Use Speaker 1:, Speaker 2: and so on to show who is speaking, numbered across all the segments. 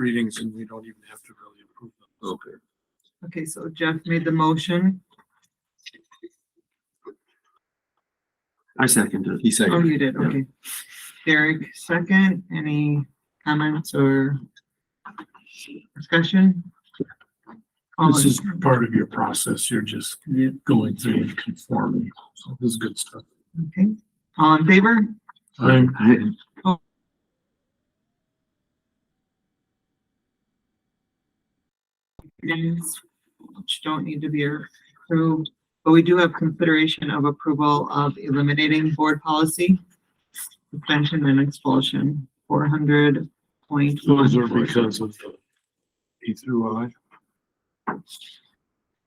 Speaker 1: readings and we don't even have to really approve them.
Speaker 2: Okay.
Speaker 3: Okay, so Jeff made the motion.
Speaker 2: I seconded. He
Speaker 3: Oh, you did,
Speaker 2: yeah.
Speaker 3: okay. Derek, second. Any comments or discussion? All
Speaker 1: Oh, This
Speaker 3: in-
Speaker 1: is part of your process. You're just going through and conforming. So this is good stuff.
Speaker 3: Okay, all in favor?
Speaker 1: I'm,
Speaker 3: Amendments Which don't need to be approved, but we do have consideration of approval of eliminating board policy. Suspension and expulsion, four hundred point
Speaker 1: those are
Speaker 3: one.
Speaker 1: because of the E through I.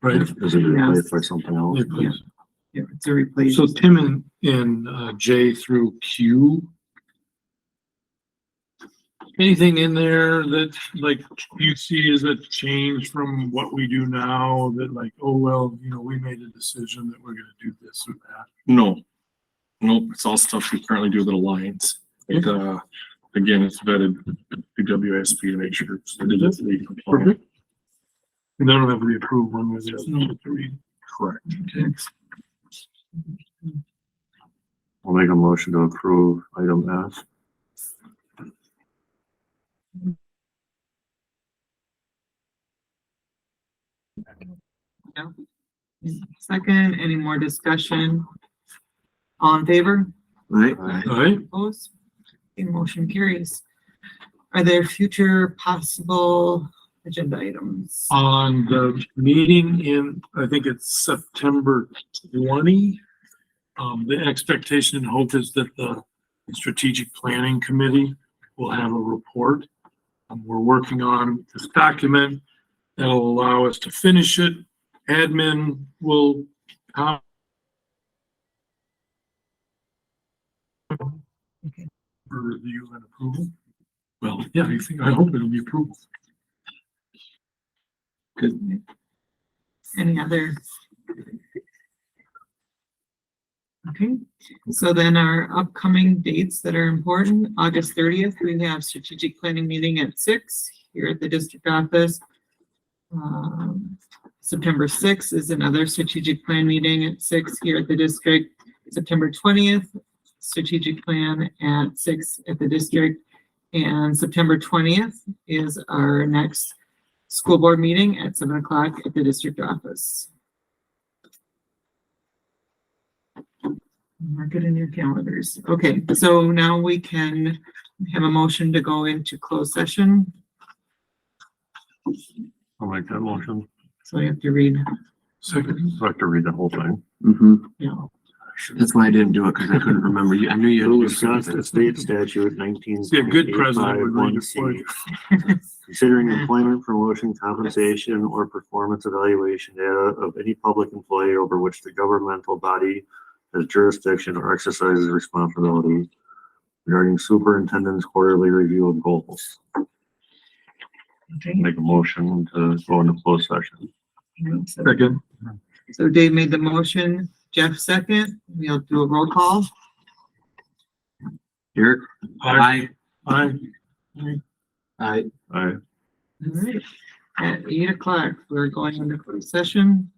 Speaker 1: Right?
Speaker 2: Is it replaced by something else?
Speaker 1: Yeah, please.
Speaker 3: Yeah, It's a replace.
Speaker 1: So Tim and, and uh, J through Q. Anything in there that like you see is a change from what we do now that like, oh, well, you know, we made a decision that we're gonna do this or that.
Speaker 4: No. Nope, it's all stuff we currently do with Alliance. It, uh, again, it's vetted through WSP to make sure. it's
Speaker 1: Mm-hmm.
Speaker 4: legally compliant.
Speaker 1: And that'll have to be approved one way or the other.
Speaker 4: Correct.
Speaker 1: Mm-hmm.
Speaker 2: I'll make a motion to approve item F.
Speaker 3: Second, any more discussion? All in favor?
Speaker 2: Right?
Speaker 1: All right,
Speaker 3: Opposed? Okay, motion carries. Are there future possible agenda items?
Speaker 1: on the meeting in, I think it's September twenty. Um, the expectation and hope is that the strategic planning committee will have a report. Um, we're working on this document that'll allow us to finish it. Admin will com-
Speaker 3: Okay.
Speaker 1: for review and approval. Well, yeah, I think, I hope it'll be approval.
Speaker 3: Any other? Okay, so then our upcoming dates that are important, August thirtieth, we have strategic planning meeting at six here at the district office. Um, September sixth is another strategic plan meeting at six here at the district. September twentieth, strategic plan at six at the district. And September twentieth is our next school board meeting at seven o'clock at the district office. Mark it in your calendars. Okay, so now we can have a motion to go into closed session.
Speaker 2: I'll make that motion.
Speaker 3: So we have to read,
Speaker 1: Second.
Speaker 2: So I have to read the whole thing. Mm-hmm.
Speaker 3: you know,
Speaker 2: That's why I didn't do it, because I couldn't remember. You- I knew you. Wisconsin State Statute nineteen.
Speaker 1: Yeah, good president would read it for you.
Speaker 2: Considering employment promotion compensation or performance evaluation data of any public employee over which the governmental body has jurisdiction or exercises responsibility regarding superintendent's quarterly review of goals.
Speaker 3: okay.
Speaker 2: Make a motion to go into closed session.
Speaker 3: So-
Speaker 1: Second.
Speaker 3: So Dave made the motion, Jeff second, we'll do a roll call.
Speaker 2: Eric?
Speaker 1: Aye.
Speaker 2: Aye. Aye.
Speaker 3: All right. At eight o'clock, we're going into closed session.